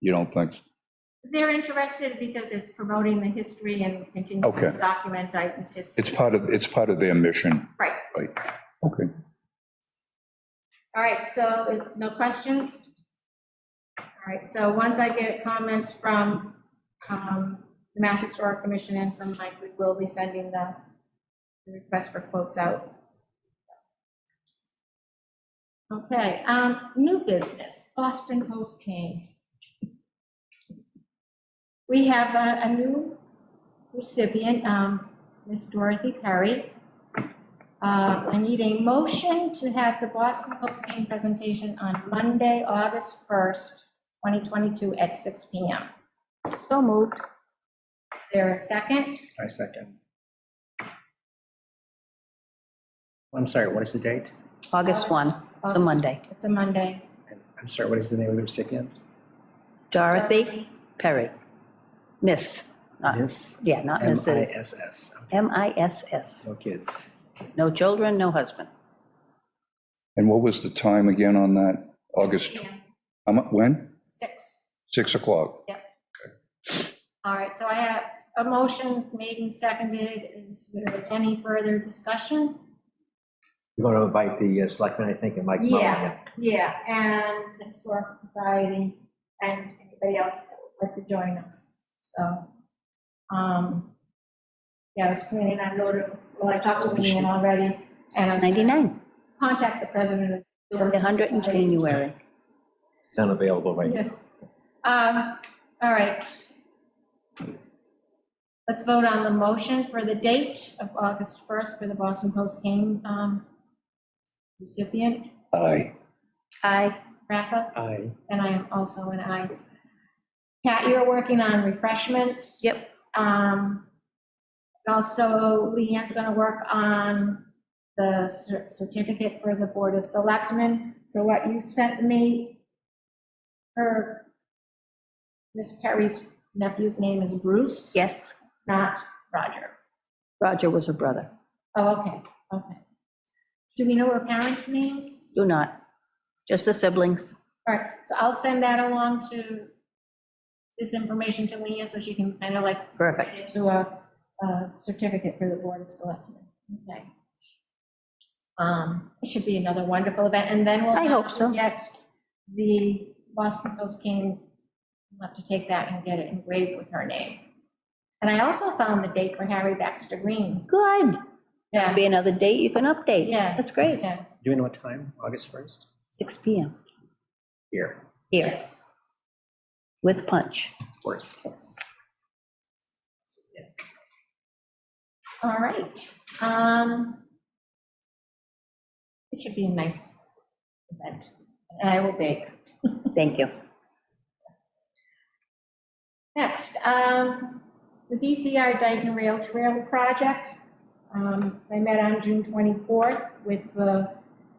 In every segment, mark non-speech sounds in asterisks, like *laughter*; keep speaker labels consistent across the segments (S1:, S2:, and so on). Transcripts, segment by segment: S1: You don't think,
S2: They're interested because it's promoting the history and continuing
S1: Okay.
S2: to document Dayton's history.
S1: it's part of, it's part of their mission,
S2: Right,
S1: right? Okay.
S2: all right, so is- no questions? All right, so once I get comments from um, the Mass Historic Commission and from Mike, we will be sending the the request for quotes out. Okay, um, new business, Boston Post came. We have a, a new recipient, um, Miss Dorothy Perry. Uh, I need a motion to have the Boston Post game presentation on Monday, August 1st, 2022 at 6 PM.
S3: So moved.
S2: Is there a second?
S4: I second. I'm sorry, what is the date?
S3: August 1, it's a
S2: August-
S3: Monday.
S2: It's a Monday.
S4: And I'm sorry, what is the name of the recipient?
S3: Dorothy Perry. Miss, not-
S4: Miss.
S3: yeah, not Mrs.
S4: M-I-S-S.
S3: M-I-S-S.
S4: No kids.
S3: No children, no husband.
S1: And what was the time again on that?
S2: 6
S1: August,
S2: p.m.,
S1: how mu- when?
S2: Six.
S1: 6 o'clock?
S2: All right, so I have a motion made and seconded. Is there any further discussion?
S5: You're going to invite the uh, selectmen, I think, and Mike Mullin.
S2: Yeah. Yeah, and the Historical Society and anybody else that would like to join us, so. um Yeah, I was planning on order, well, I talked to Leanne already, and I was. gonna
S3: 99,
S2: Contact the president of. the Historical
S3: 100 in
S2: Society.
S3: January.
S5: It's unavailable right now.
S2: Um, All right. Let's vote on the motion for the date of August 1st for the Boston Post King um, recipient.
S1: Aye.
S2: Aye. Rafa?
S4: I,
S2: And I am also an aye. Pat, you're working on refreshments.
S3: Yep.
S2: Um, and Also, Leanne's going to work on the cer- certificate for the Board of Selectmen. So what you sent me, her, Miss Perry's nephew's name is Bruce?
S3: Yes,
S2: Not Roger.
S3: Roger was her brother.
S2: Oh, okay, okay. Do we know her parents' names?
S3: Do not, just the siblings.
S2: All right, so I'll send that along to, this information to Leanne, so she can kind of like
S3: Perfect.
S2: put it to a, a certificate for the Board of Selectmen. Okay. Um, It should be another wonderful event, and then we'll.
S3: I hope so.
S2: Get the Boston Post King, we'll have to take that and get it engraved with her name. And I also found the date for Harry Baxter Green.
S3: Good.
S2: Yeah,
S3: Be another date you can update.
S2: Yeah.
S3: That's great.
S2: yeah,
S4: do we know what time? August 1st?
S3: 6 PM
S4: Here,
S3: here
S2: yes.
S3: with punch.
S4: of course.
S2: All right. um, It should be a nice event. and I will bake.
S3: Thank you.
S2: Next, um, the DCR Dayton Rail Trail Project. Um, I met on June 24th with the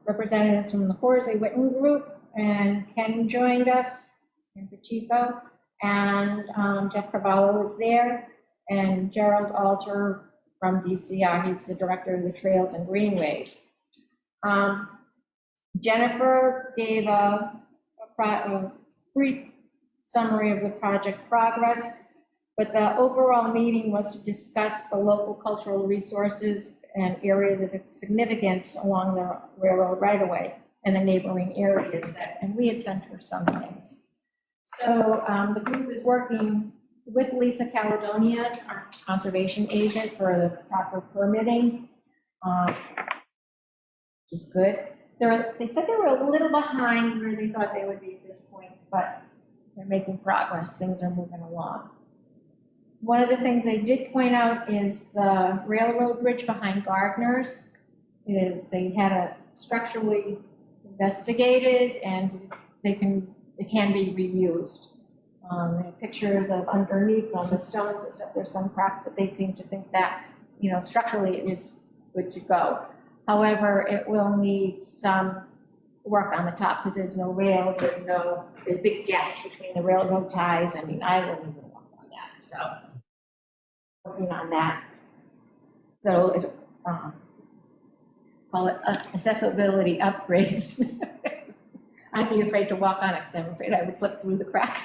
S2: representatives from the Horsey Witten Group, and Ken joined us, and Pacheco, and um, Jeff Cavallo was there, and Gerald Alter from DCR, he's the director of the Trails and Greenways. Um, Jennifer gave a a pro- a brief summary of the project progress. But the overall meeting was to discuss the local cultural resources and areas of significance along the railroad right-of-way and the neighboring areas that, and we had sent her some things. So um, the group is working with Lisa Caledonia, our conservation agent, for the proper permitting. um, Which is good. They were, they said they were a little behind where they thought they would be at this point, but they're making progress, things are moving along. One of the things I did point out is the railroad bridge behind Gardner's is they had a structurally investigated and they can, it can be reused. Um, they have pictures of underneath on the stones and stuff, there's some cracks, but they seem to think that, you know, structurally it is good to go. However, it will need some work on the top because there's no rails, there's no, there's big gaps between the railroad ties. I mean, I wouldn't even walk on that, so. Working on that. So, it, um, call it uh, *laughs* accessibility upgrades. I'd be afraid to walk on it because I'm afraid I would slip through the cracks.